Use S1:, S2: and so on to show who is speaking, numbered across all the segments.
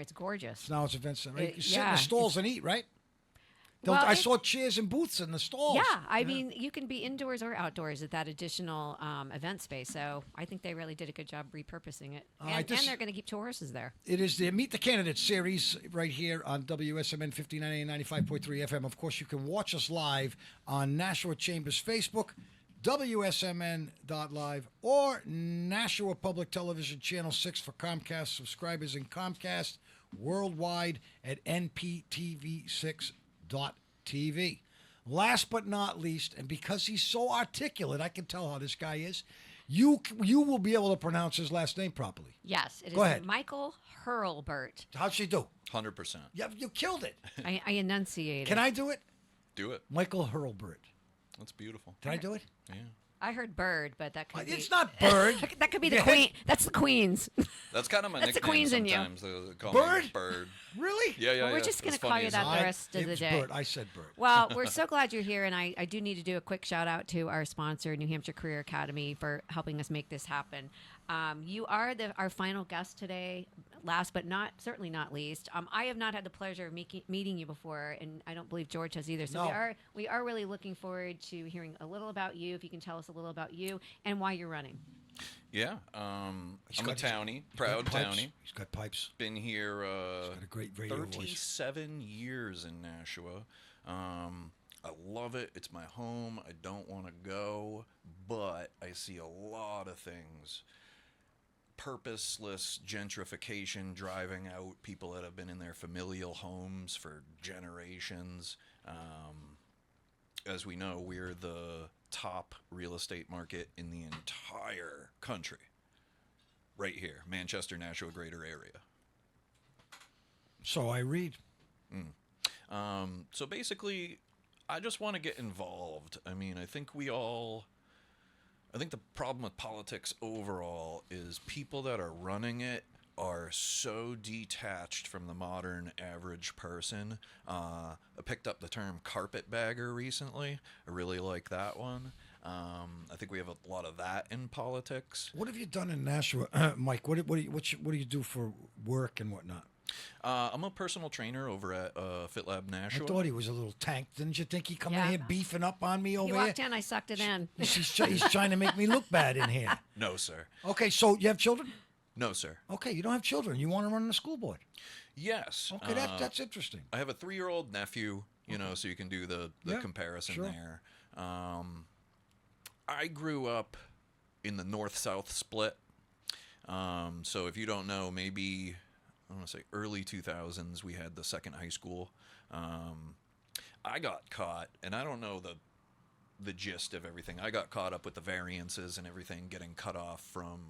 S1: It's gorgeous.
S2: So now it's event center. Right?
S1: Uh,
S2: You sit in
S1: yeah,
S2: the stalls and eat, right? They'll-
S1: Well,
S2: I
S1: it-
S2: saw chairs and booths in the stalls.
S1: Yeah, I mean, you can be indoors or outdoors at that additional um, event space. So I think they really did a good job repurposing it,
S2: All
S1: and,
S2: right, this-
S1: and they're going to keep two horses there.
S2: It is the Meet the Candidates series right here on WSMN 59 95.3 FM. Of course, you can watch us live on Nashua Chambers Facebook, WSMN.live, or Nashua Public Television Channel 6 for Comcast subscribers and Comcast worldwide at NPTV6.tv. Last but not least, and because he's so articulate, I can tell how this guy is, you, you will be able to pronounce his last name properly.
S1: Yes, it is
S2: Go ahead.
S1: Michael Hurlbert.
S2: How'd she do?
S3: Hundred percent.
S2: Yeah, you killed it.
S1: I, I enunciated.
S2: Can I do it?
S3: Do it.
S2: Michael Hurlbert.
S3: That's beautiful.
S2: Can I do it?
S3: Yeah.
S1: I heard bird, but that could be.
S2: It's not bird.
S1: That could be the
S2: Yeah.
S1: queen. That's the queen's.
S3: That's kind of my
S1: That's the
S3: nickname
S1: queen's in you.
S3: sometimes. They call Me
S2: Bird?
S3: bird.
S2: Really?
S3: Yeah, yeah.
S1: Well, we're
S3: yeah.
S1: just gonna
S3: It's
S1: call
S3: funny,
S1: you
S3: isn't
S1: that
S3: it?
S1: the
S2: I-
S1: rest of
S2: it
S1: the
S2: was
S1: day.
S2: Bird. I said bird.
S1: Well, we're so glad you're here, and I, I do need to do a quick shout out to our sponsor, New Hampshire Career Academy, for helping us make this happen. Um, you are the our final guest today. Last but not certainly not least, um, I have not had the pleasure of meeking, meeting you before, and I don't believe George has either. So we
S2: No.
S1: are we are really looking forward to hearing a little about you. If you can tell us a little about you and why you're running.
S3: Yeah. Um,
S2: He's
S3: I'm a
S2: got his-
S3: townie,
S2: he's got
S3: proud
S2: pipes.
S3: townie.
S2: He's got pipes.
S3: Been here uh,
S2: got a great radio voice.
S3: 37 years in Nashua. Um, I love it. It's my home. I don't want to go, but I see a lot of things. Purposeless gentrification driving out people that have been in their familial homes for generations. Um, as we know, we're the top real estate market in the entire country. Right here, Manchester, Nashua, greater area.
S2: So I read.
S3: Um, so basically, I just want to get involved. I mean, I think we all. I think the problem with politics overall is people that are running it are so detached from the modern average person. Uh, I picked up the term carpetbagger recently. I really like that one. Um, I think we have a lot of that in politics.
S2: What have you done in Nashua, Mike? What do- what do you, what you, what do you do for work and whatnot?
S3: Uh, I'm a personal trainer over at uh, FitLab Nashua.
S2: I thought he was a little tank. Didn't you think he come
S1: Yeah.
S2: in here beefing up on me
S1: You
S2: over
S1: walked
S2: here?
S1: in, I sucked it in.
S2: He's, try- he's trying to make me look bad in here.
S3: no, sir.
S2: Okay, so you have children?
S3: No, sir.
S2: Okay, you don't have children. You want to run the school board?
S3: Yes.
S2: Okay, that,
S3: uh,
S2: that's interesting.
S3: I have a three-year-old nephew, you know, so you can do the the
S2: Yeah,
S3: comparison
S2: sure.
S3: there. Um, I grew up in the north-south split, um, so if you don't know, maybe I want to say early 2000s, we had the second high school. Um, I got caught, and I don't know the the gist of everything. I got caught up with the variances and everything, getting cut off from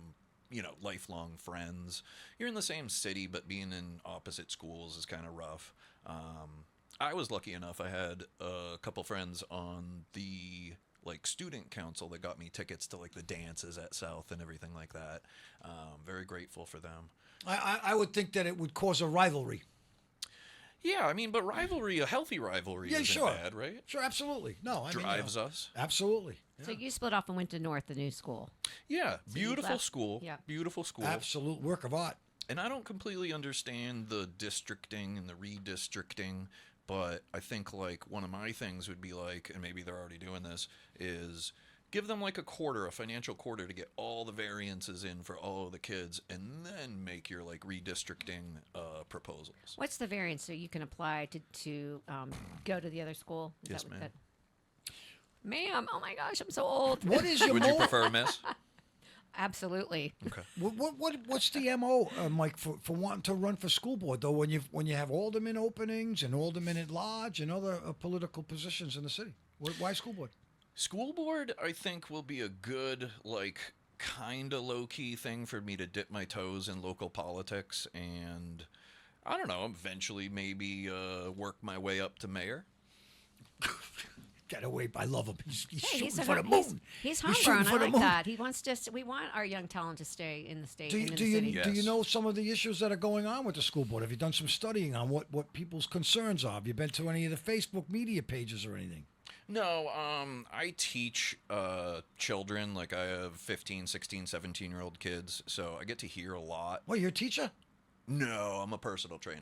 S3: you know lifelong friends. You're in the same city, but being in opposite schools is kind of rough. Um, I was lucky enough; I had a couple friends on the like student council that got me tickets to like the dances at South and everything like that. Um, very grateful for them.
S2: I, I, I would think that it would cause a rivalry.
S3: Yeah, I mean, but rivalry, a healthy rivalry,
S2: Yeah,
S3: isn't
S2: sure.
S3: bad, right?
S2: Sure, absolutely. No, I mean, you
S3: Drives
S2: know,
S3: us.
S2: Absolutely.
S1: So you split off and went to North, the new school.
S3: Yeah, beautiful
S1: left-
S3: school.
S1: yeah.
S3: Beautiful school.
S2: Absolute work of art.
S3: and I don't completely understand the districting and the redistricting, but I think like one of my things would be like, and maybe they're already doing this, is give them like a quarter, a financial quarter to get all the variances in for all of the kids, and then make your like redistricting uh, proposals.
S1: What's the variance that you can apply to to um, go to the other school? Is
S3: Yes,
S1: that
S3: ma'am.
S1: That... Ma'am, oh my gosh, I'm so old.
S2: What is your
S3: Would you
S2: mo?
S3: prefer, Miss?
S1: Absolutely.
S2: what, what, what what's the mo, uh, Mike, for, for wanting to run for school board though? When you when you have alderman openings and alderman at large and other uh, political positions in the city, why, why school board?
S3: School board, I think, will be a good, like, kind of low key thing for me to dip my toes in local politics and, I don't know, eventually maybe uh, work my way up to mayor.
S2: Get away! I love him. He's, he's
S1: Hey,
S2: shooting
S1: he's, a,
S2: for the
S1: hom-
S2: moon.
S1: he's, he's homegrown.
S2: shooting for
S1: I
S2: the
S1: like
S2: moon.
S1: that. He wants to. We want our young talent to stay in the state.
S2: Do you,
S1: and in
S2: do
S1: the
S2: you
S1: city.
S2: do you
S3: Yes.
S2: know some of the issues that are going on with the school board? Have you done some studying on what, what people's concerns are? Have you been to any of the Facebook media pages or anything?
S3: No, um, I teach uh, children, like, I have 15, 16, 17 year old kids, so I get to hear a lot.
S2: Well, you're a teacher.
S3: No, I'm a personal trainer.